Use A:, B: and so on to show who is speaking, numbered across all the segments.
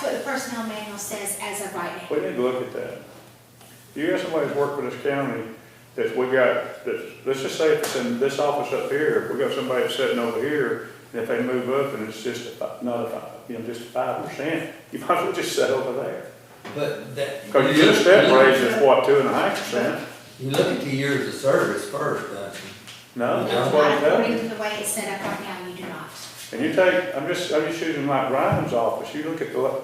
A: the personnel manual says as of right now.
B: We need to look at that. You got somebody that's worked for this county that we got, that, let's just say if it's in this office up here, we got somebody that's sitting over here, and if they move up and it's just a, fi- not a, fi- you know, just a five percent, you might as well just sit over there.
C: But that.
B: Cause you get a step raise that's what, two and a half percent?
C: You look at the years of service first, uh, don't you?
B: No, that's what I'm
A: Not
B: telling
A: According
B: you.
A: to the way it's set up right now, you do not.
B: And you take, I'm just, I'm just using like Ryan's office, you look at the,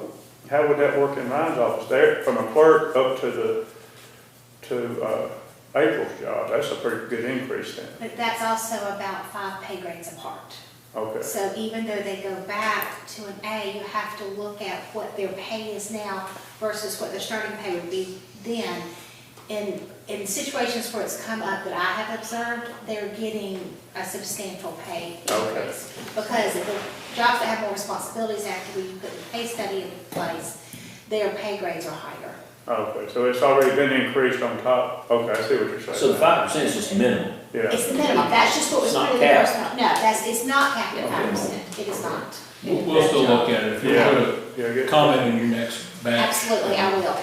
B: how would that work in Ryan's office there, from a clerk up to the, to, uh, April's job, that's a pretty good increase then,
A: But that's also about five pay grades apart.
B: okay.
A: So even though they go back to an A, you have to look at what their pay is now versus what their starting pay would be then. In, in situations where it's come up that I have observed, they're getting a substantial pay
B: Okay.
A: increase. Because if the jobs that have more responsibilities after we put the pay study in place, their pay grades are higher.
B: Okay, so it's already been increased on top, okay, I see what you're saying.
D: So the five percent is just minimal.
B: Yeah,
A: It's the minimum, that's just what was
D: It's not
A: put in the
D: capped.
A: first one. No, that's, it's not capped at
D: Okay.
A: five percent, it is not.
E: We'll, we'll still look at it, if you
B: yeah,
E: want
B: yeah,
E: to
B: good.
E: comment in your next batch.
A: Absolutely, I will.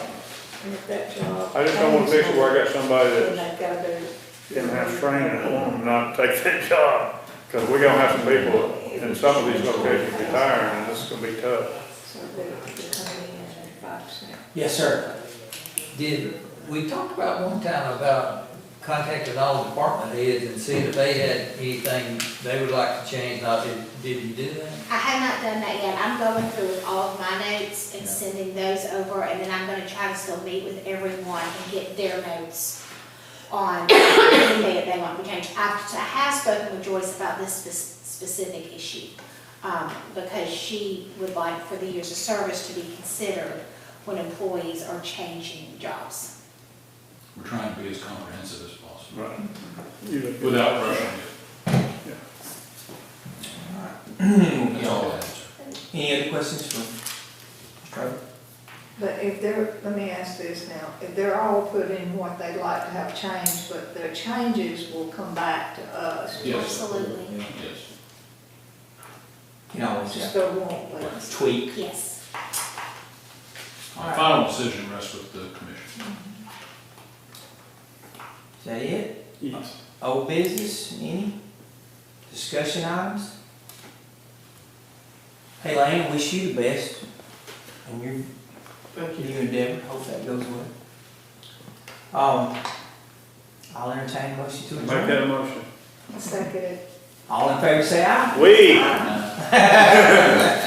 F: And if that job.
B: I just don't wanna fix it where I got somebody
F: Then
B: that
F: they've got to do.
B: didn't have training, I want them not to take that job. Cause we're gonna have some people in some of these locations retiring, and this is gonna be tough.
F: So they they come in at five percent.
G: Yes, sir.
C: Did, we talked about one time about contacting all department heads and seeing if they had anything they would like to change, not, did, did you do that?
A: I have not done that yet. I'm going through all of my notes and sending those over, and then I'm gonna try to still meet with everyone and get their notes on anything that they want to change. I've, I have spoken with Joyce about this spec- specific issue, um, because she would like for the years of service to be considered when employees are changing jobs.
E: We're trying to be as comprehensive as possible,
B: Right. You-
E: without rushing it. That's all I have, sir.
G: Any other questions for Mr. Trevor?
F: But if they're, let me ask this now, if they're all put in what they'd like to have changed, but their changes will come back to us.
E: Yes.
A: Absolutely,
E: Yes.
G: You know, it's
F: Just
G: just
F: go on with us.
G: tweak.
A: yes.
E: Our final decision rests with the commission.
G: Is that it?
B: Yes.
G: Old business, any? Discussion items? Hey, Lane, wish you the best in your, in your endeavor. Hope that goes well. Um, I'll entertain a motion to
B: Make
G: adjourn.
B: that a motion.
F: Second.
G: All in favor, say aye.
B: We.
G: Aye.